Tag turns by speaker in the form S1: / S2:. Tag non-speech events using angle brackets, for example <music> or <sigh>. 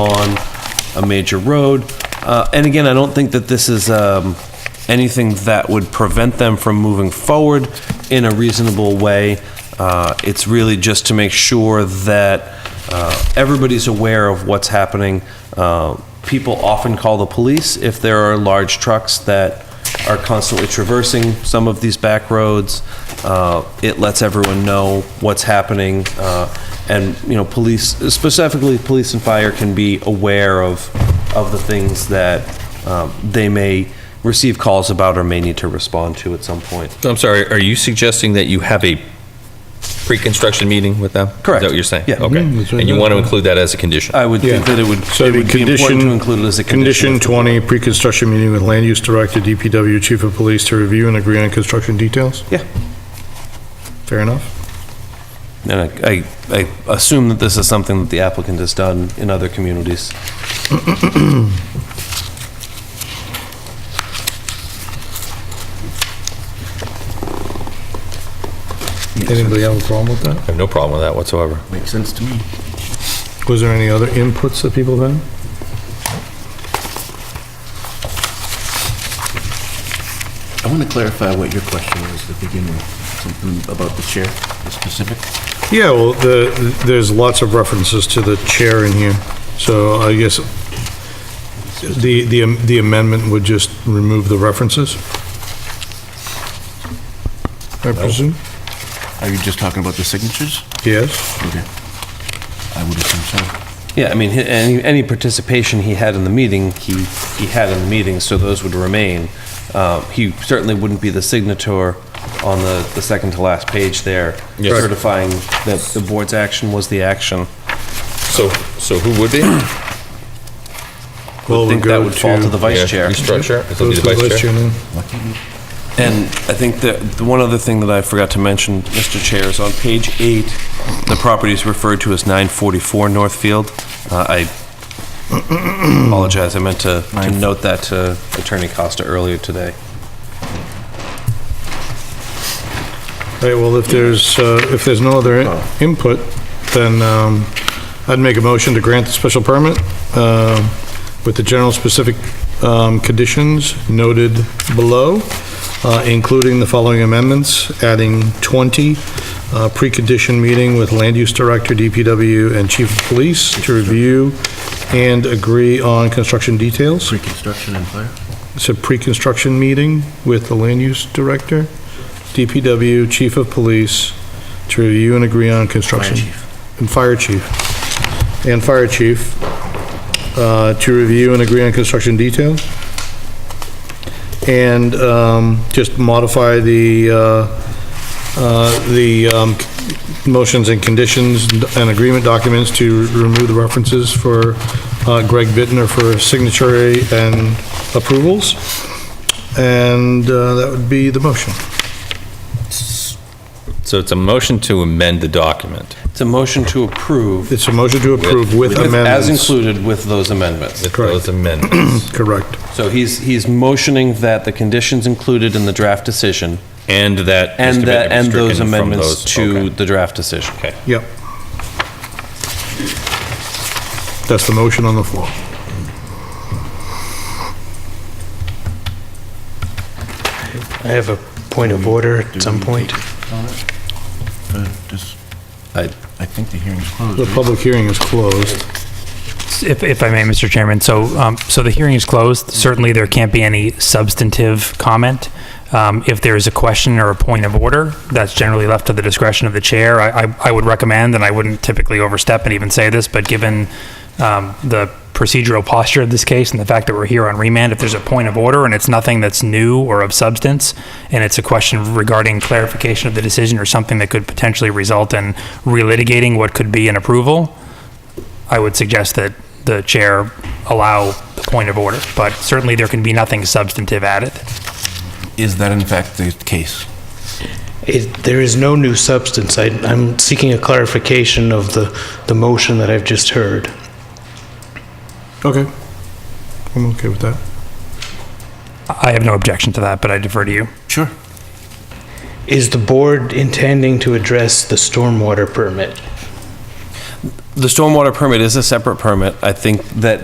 S1: on a major road. Uh, And again, I don't think that this is um, anything that would prevent them from moving forward in a reasonable way. Uh, It's really just to make sure that uh, everybody's aware of what's happening. Uh, People often call the police if there are large trucks that are constantly traversing some of these back roads. Uh, It lets everyone know what's happening, uh, and, you know, police, specifically, police and fire can be aware of, of the things that um, they may receive calls about or may need to respond to at some point.
S2: I'm sorry, are you suggesting that you have a pre-construction meeting with them?
S1: Correct.
S2: Is that what you're saying?
S1: Yeah. Uh,
S2: Okay.
S3: Mm, that's right.
S2: And you want to include that as a condition?
S1: I would think that it would,
S3: So
S1: it
S3: the
S1: would be
S3: condition.
S1: important to include it as a condition.
S3: Condition 20, pre-construction meeting with land use director, DPW, chief of police to review and agree on construction details?
S1: Yeah.
S3: Fair enough.
S1: And I, I- I assume that this is something that the applicant has done in other communities.
S3: Anybody have a problem with
S2: I
S3: that?
S2: have no problem with that whatsoever.
S4: Makes sense to me.
S3: Was there any other inputs that people had?
S4: I want to clarify what your question was to begin with, something about the chair, the specific.
S3: Yeah, well, the, there's lots of references to the chair in here, so I guess the, the am- the amendment would just remove the references? I presume?
S4: Are you just talking about the signatures?
S3: Yes?
S4: Okay. I would assume so.
S1: Yeah, I mean, he- any, any participation he had in the meeting, he, he had in the meeting, so those would remain. Uh, He certainly wouldn't be the signator on the, the second to last page there,
S2: Yes.
S1: certifying that the board's action was the action.
S2: So, so
S1: <clears throat>
S2: who would be?
S3: Well,
S1: I
S3: we
S1: think that would fall to the vice chair.
S2: Restructure? Is
S3: Goes
S2: it
S3: to
S2: the vice chair?
S3: then.
S1: And I think that, the one other thing that I forgot to mention, Mr. Chair, is on page eight, the property is referred to as 944 Northfield. Uh, I apologize, I <coughs> meant to, to
S4: Nine-
S1: note that to Attorney Costa earlier today.
S3: All right, well, if there's, uh, if there's no other in- input, then um, I'd make a motion to grant the special permit um, with the general specific um, conditions noted below, uh, including the following amendments, adding 20, uh, precondition meeting with land use director, DPW, and chief of police to review and agree on construction details.
S4: Pre-construction and fire?
S3: It's a pre-construction meeting with the land use director, DPW, chief of police, to review and agree on construction. And fire chief. And fire chief, uh, to review and agree on construction details. And um, just modify the, uh, uh, the um, motions and conditions and agreement documents to remove the references for uh, Greg Bittner for signatory and approvals. And uh, that would be the motion.
S2: So it's a motion to amend the document.
S1: It's a motion to approve
S3: It's a motion to approve with
S1: with- as
S3: amendments.
S1: included with those amendments.
S2: With
S3: Correct.
S1: <clears throat>
S2: those amendments.
S3: Correct.
S1: So he's, he's motioning that the conditions included in the draft decision
S2: And that.
S1: and
S2: Mr.
S1: that,
S2: Bittner
S1: and
S2: stricken
S1: those
S2: from
S1: amendments
S2: those-
S1: to
S2: okay.
S1: the draft decision.
S2: Okay.
S3: Yep. That's the motion on the floor.
S5: I have a point of order at some point.
S4: Uh, just-
S1: I-
S4: I think the hearing's closed.
S3: The
S4: right?
S3: public hearing is closed.
S6: If, if I may, Mr. Chairman, so, um, so the hearing is closed. Certainly, there can't be any substantive comment. Um, if there is a question or a point of order, that's generally left to the discretion of the chair. I, I, I would recommend, and I wouldn't typically overstep and even say this, but given, um, the procedural posture of this case and the fact that we're here on remand, if there's a point of order and it's nothing that's new or of substance, and it's a question regarding clarification of the decision or something that could potentially result in relitigating what could be an approval, I would suggest that the chair allow the point of order, but certainly there can be nothing substantive added.
S4: Is that in fact the case?
S5: It- There is no new substance. I- I'm seeking a clarification of the, the motion that I've just heard.
S3: Okay. I'm okay with that.
S6: I have no objection to that, but I defer to you.
S4: Sure.
S5: Is the board intending to address the stormwater permit?
S1: the stormwater permit is a separate permit. I think that